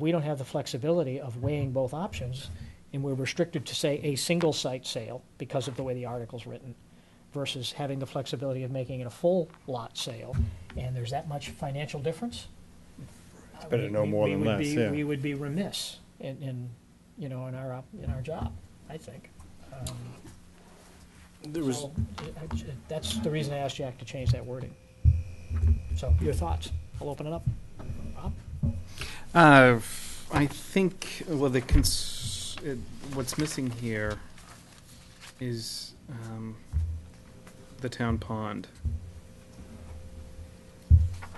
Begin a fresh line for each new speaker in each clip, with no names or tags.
We don't have the flexibility of weighing both options, and we're restricted to, say, a single site sale because of the way the article's written, versus having the flexibility of making it a full lot sale, and there's that much financial difference. It's
better to know more than less, yeah.
We would be remiss in, in, you know, in our, op- in our job, I think. Um,
There was,
so, I- I- That's the reason I asked Jack to change that wording. So, your thoughts? I'll open it up. Rob?
uh, I think, well, the cons, it, what's missing here is, um, the town pond.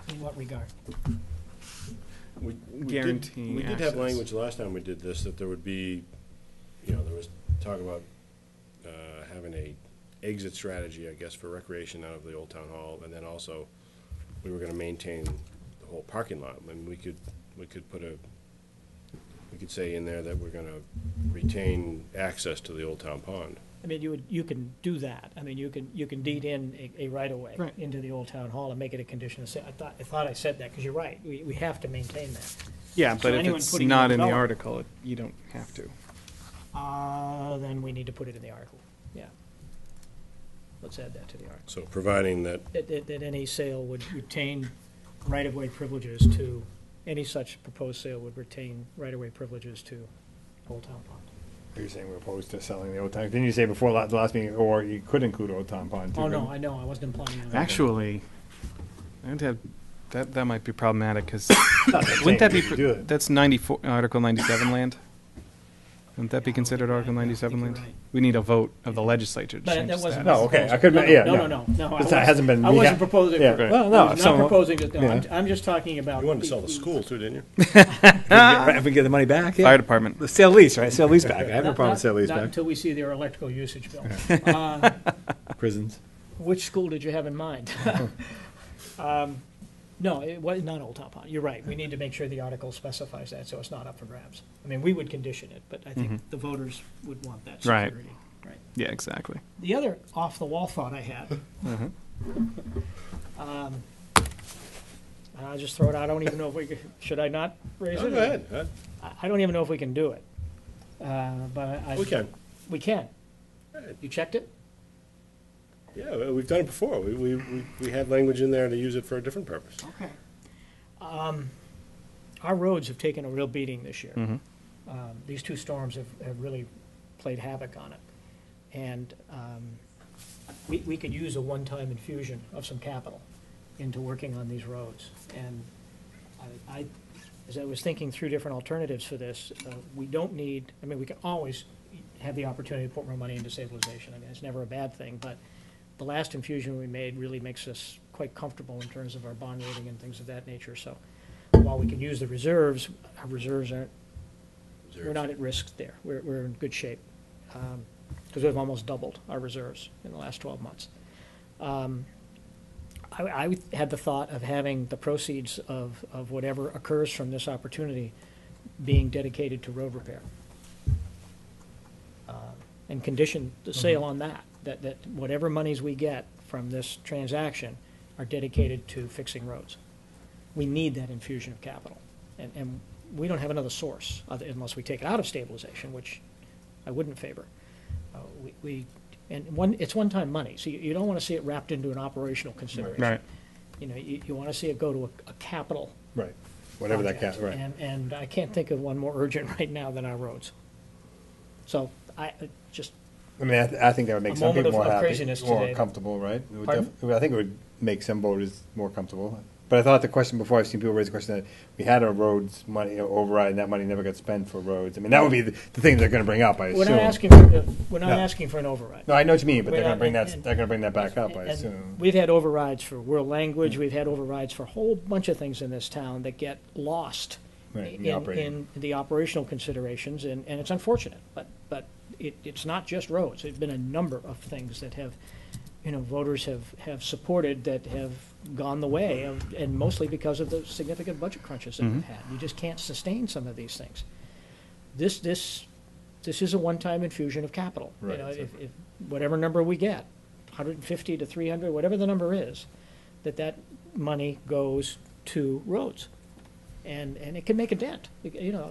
In what regard?
We- we did-
Guaranteeing
We did
access.
have language last time we did this, that there would be, you know, there was talk about uh, having a exit strategy, I guess, for recreation out of the old town hall, and then also, we were gonna maintain the whole parking lot, and we could, we could put a, we could say in there that we're gonna retain access to the old town pond.
I mean, you would, you can do that. I mean, you can, you can deed in a, a right-of-way
Mm-hmm. Right.
into the old town hall and make it a condition of sale. I thought, I thought I said that, because you're right. We, we have to maintain that.
Yeah,
So
but if
anyone
it's
putting in a
not in the
development-
article, it- you don't have to.
Uh, then we need to put it in the article, yeah. Let's add that to the article.
So providing that,
That, that, that any sale would retain right-of-way privileges to, any such proposed sale would retain right-of-way privileges to Old Town Pond.
You're saying we're opposed to selling the Old Town, didn't you say before la- the last meeting, or you could include Old Town Pond too?
Oh, no,
couldn't
I know, I wasn't implying that.
Actually, I'd have, that, that might be problematic, because
you? Not
wouldn't that
saying
be,
we should do
pr-
it.
that's ninety-four, Article ninety-seven land? Wouldn't that be
Yeah, I don't think
considered
that-
Article
I think
ninety-seven
you're
land?
right.
We need a vote of the legislature to
But that
change
wasn't.
that.
No, okay, I could-
No, no,
yeah,
No, no,
no.
no, no. I
It's not-
wasn't-
hasn't been
I wasn't
reha-
proposing,
Yeah,
for-
right.
well,
No,
no, not
someone-
proposing, to- no, I'm,
yeah.
I'm just talking about.
you wanted to sell the school too, didn't you?
If we get the money back,
Fire department.
The sale lease, right, sale lease back, I have
Not-
no problem
not-
with sale lease
Not
back,
until we see their electrical usage bill. Uh,
prisons.
Which school did you have in mind? Um, No, it was not Old Town Pond, you're right, we need to make sure the article specifies that, so it's not up for grabs. I mean, we would condition it, but I
Mm-hmm.
think the voters would want that
Right.
security. Right.
Yeah, exactly.
The other off-the-wall thought I had.
Mm-hmm.
Um, I'll just throw it out, I don't even know if we, could- should I not raise
Oh,
it?
Go ahead, huh?
I I don't even know if we can do it. Uh, But I.
we can,
We can. You checked it?
yeah, we- we've done it before, we, we, we- we had language in there to use it for a different purpose.
Okay. Um, Our roads have taken a real beating this year. Um, These two storms have, have really played havoc on it. And um, we, we could use a one-time infusion of some capital into working on these roads. And I, I, as I was thinking through different alternatives for this, uh, we don't need, I mean, we can always have the opportunity to put more money into stabilization. I mean, it's never a bad thing, but the last infusion we made really makes us quite comfortable in terms of our bond rating and things of that nature. So while we can use the reserves, our reserves aren't, we're not at risk there. We're, we're in good shape. Because we've almost doubled our reserves in the last 12 months. Um, I, I had the thought of having the proceeds of, of whatever occurs from this opportunity being dedicated to road repair. Um, And condition the
Mm-hmm.
sale on that, that, that whatever monies we get from this transaction are dedicated to fixing roads. We need that infusion of capital. And, and we don't have another source other- unless we take it out of stabilization, which I wouldn't favor. Uh, we- We, and one, it's one-time money, so you- you don't want to see it wrapped into an operational consideration.
Right.
You know, you, you want to see it go to a, a capital
Right, whatever that cat,
project.
right.
And, and I can't think of one more urgent right now than our roads. So I, uh, just,
I mean, I, th- I think that would make
A
some
moment
people
of-
more
of
happy,
craziness
more
today.
comfortable, right? It would
Pardon?
def- I think it would make some voters more comfortable. But I thought the question before, I've seen people raise the question that we had our roads money override and that money never got spent for roads. I mean, that would be the, the thing they're gonna bring up, I assume.
we're not asking, for- we're not
No.
asking for an override.
No, I know what you mean, but
We're
they're gonna
not-
bring that,
and-
they're gonna bring that back up, I
And
assume. Mm.
We've had overrides for world language, we've had overrides for a whole bunch of things in this town that get lost
Right, in
in,
the operating.
in the operational considerations, and, and it's unfortunate, but, but it, it's not just roads. There've been a number of things that have, you know, voters have, have supported that have gone the way of, and mostly because of the significant budget crunches that
Mm-hmm.
we've had. You just can't sustain some of these things. This, this, this is a one-time infusion of capital. You
Right,
know, if,
exactly.
if, whatever number we get, hundred and fifty to three hundred, whatever the number is, that that money goes to roads. and, and it can make a dent, you know,